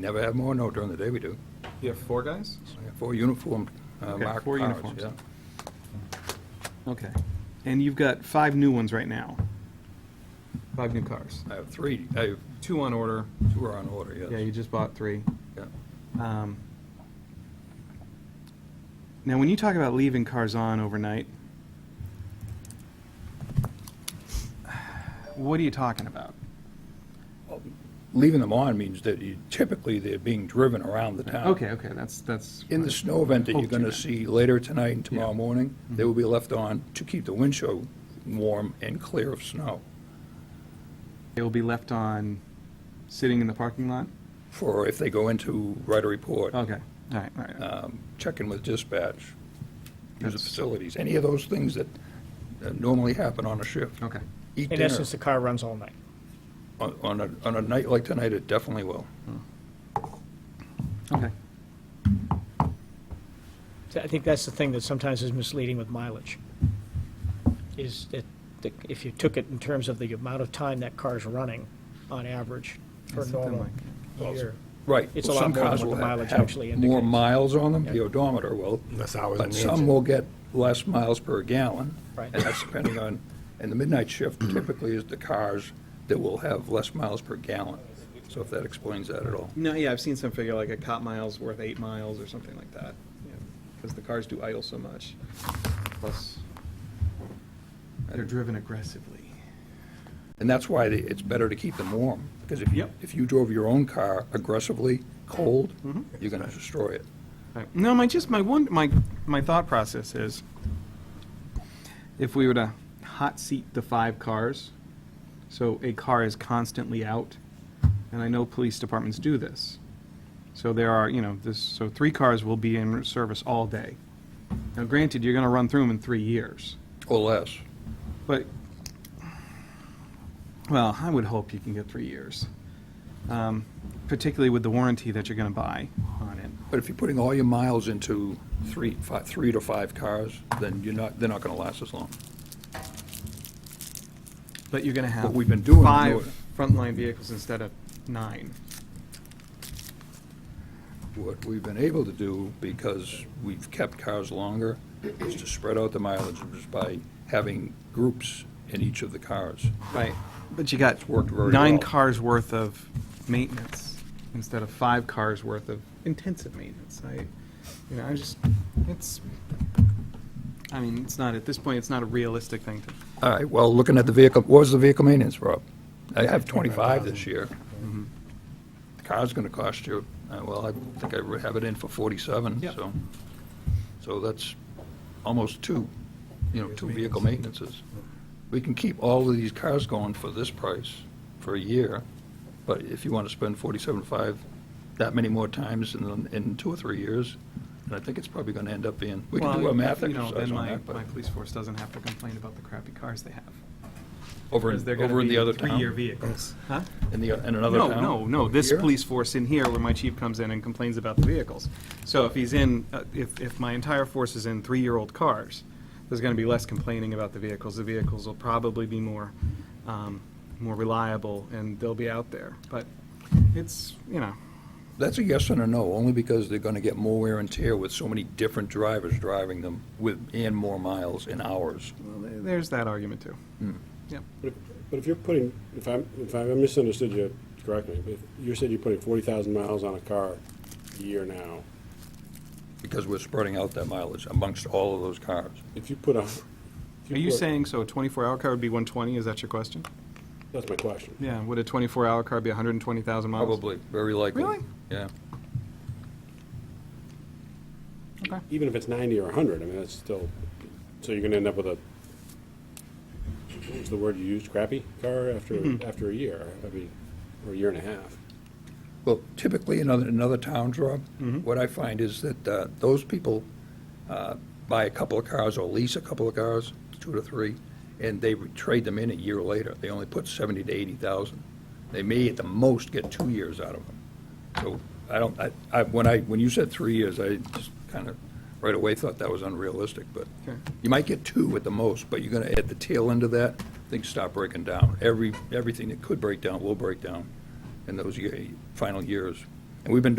Never have more, no, during the day we do. You have four guys? We have Four uniformed, uh, Okay, marked four cars, uniforms. yeah. Okay. And you've got five new ones right now? Five new cars. I have three, I have Two on order. two are on order, yes. Yeah, you just bought three. Yeah. Um, Now, when you talk about leaving cars on overnight, what are you talking about? Leaving them on means that you- typically they're being driven around the town. Okay, okay, that's, that's. In the snow event that you're Hoped going to meant. see later tonight and tomorrow Yeah. Mm-hmm. morning, they will be left on to keep the windshield warm and clear of snow They will be left on, sitting in the parking lot? for if they go in to write a report, Okay, all right, all right. um, check in with dispatch, use the That's- facilities, any of those things that that normally happen on a shift. Okay. Eat In dinner. essence, the car runs all night. On on a, on a night like tonight, it definitely will. Hmm. Okay. So I think that's the thing that sometimes is misleading with mileage, is that the- if you took it in terms of the amount of time that car's running on average for That's something normal like- year. Right. It's a Some lot more than cars what will the have- mileage have actually More indicates. miles on them, the Yeah. odometer will, That's hours in but the some engine. will get less miles per gallon. Right. And that's depending on, and the midnight shift Hmm. typically is the cars that will have less miles per gallon. So if that explains that at all. No, yeah, I've seen some figure like a cop mile's worth eight miles or something like that, because the cars do idle so much. Plus, they're driven aggressively. And that's why the- it's better to keep them warm, because if you, Yep. if you drove your own car aggressively cold, Mm-hmm. you're going to destroy it. No, my just my one my my thought process is, if we were to hot seat the five cars, so a car is constantly out, and I know police departments do this. So there are, you know, this, so three cars will be in service all day. Now granted, you're gonna run through them in three years. Or less. But, well, I would hope you can get three years, um, particularly with the warranty that you're going to buy on it. But if you're putting all your miles into three, fi three to five cars, then you're not, they're not going to last as long. But you're going to have What we've been doing, five doing- frontline vehicles instead of nine. What we've been able to do, because we've kept cars longer, is to spread out the mileage just by having groups in each of the cars. Right. But you got It's worked very nine well. cars worth of maintenance instead of five cars worth of intensive maintenance. I, you know, I just, it's, I mean, it's not, at this point, it's not a realistic thing to All right, well, looking at the vehicle, what was the vehicle maintenance, Rob? I have 25 this year. mm-hmm. The car's going to cost you, uh, well, I think I have it in for 47, Yep. so. So that's almost two, you know, two vehicle maintenances. We can keep all of these cars going for this price for a year, but if you want to spend 47.5 that many more times in, the- in two or three years, and I think it's probably going to end up being, we can do Well, a math you know, exercise then on my- that, but My police force doesn't have to complain about the crappy cars they have. over Because in, they're gonna over in be the other town. Three-year vehicles. Huh? In the, in another No, town? no, no, this Here? police force in here, where my chief comes in and complains about the vehicles. So if he's in, uh, if, if my entire force is in three-year-old cars, there's gonna be less complaining about the vehicles. The vehicles will probably be more, um, more reliable, and they'll be out there. But it's, you know, That's a yes and a no, only because they're gonna get more wear and tear with so many different drivers driving them with, and more miles and hours. Hmm. well, there- there's that argument too. Yep. But if- but if you're putting, if I'm, if I misunderstood you, correct me, but if you said you're putting forty thousand miles on a car a year now. Because we're spreading out that mileage amongst all of those cars. If you put a. if Are you put- saying, so a twenty-four hour car would be one twenty, is that your question? That's my question. Yeah, would a 24-hour car be 120,000 miles? Probably, very likely. Really? Yeah. Even if it's ninety or hundred, I mean, that's still, so you're gonna end up with a, what was the word you used, crappy car after, Mm-hmm. after a year, I mean, or a year and a half. Well, typically in other, in other towns, Rob, what I find is that uh, those people uh, buy a couple of cars or lease a couple of cars, two to three, and they re- trade them in a year later. They only put seventy to eighty thousand. They may at the most get two years out of them. So I don't, I, I, when I, when you said three years, I just kind of right away thought that was unrealistic, but Okay. you might get two at the most, but you're gonna, at the tail end of that, things stop breaking down. Every, everything that could break down will break down in those ye- final years. And we've been